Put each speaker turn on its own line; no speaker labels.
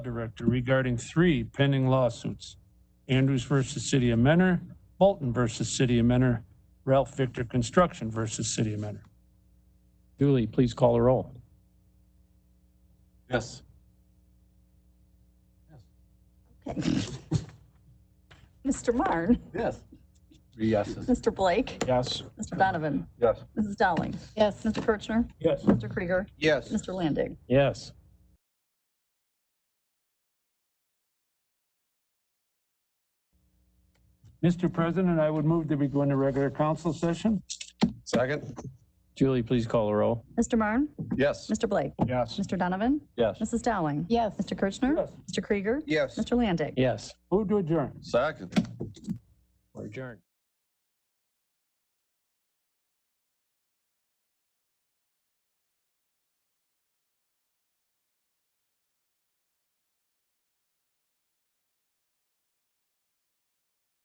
Director regarding three pending lawsuits. Andrews versus City of Mentor, Bolton versus City of Mentor, Ralph Victor Construction versus City of Mentor.
Dooley, please call the roll.
Yes.
Okay. Mr. Marn,
Yes. Three yeses.
Mr. Blake,
Yes.
Mr. Donovan,
Yes.
Mrs. Dowling. Yes. Mr. Kirchner,
Yes.
Mr. Krieger,
Yes.
Mr. Landig.
Yes.
Mr. President, I would move that we go into regular council session.
Second?
Julie, please call the roll.
Mr. Marn,
Yes.
Mr. Blake,
Yes.
Mr. Donovan,
Yes.
Mrs. Dowling. Yes. Mr. Kirchner,
Yes.
Mr. Krieger,
Yes.
Mr. Landig.
Yes.
Move to adjourn.
Second.
We're adjourned.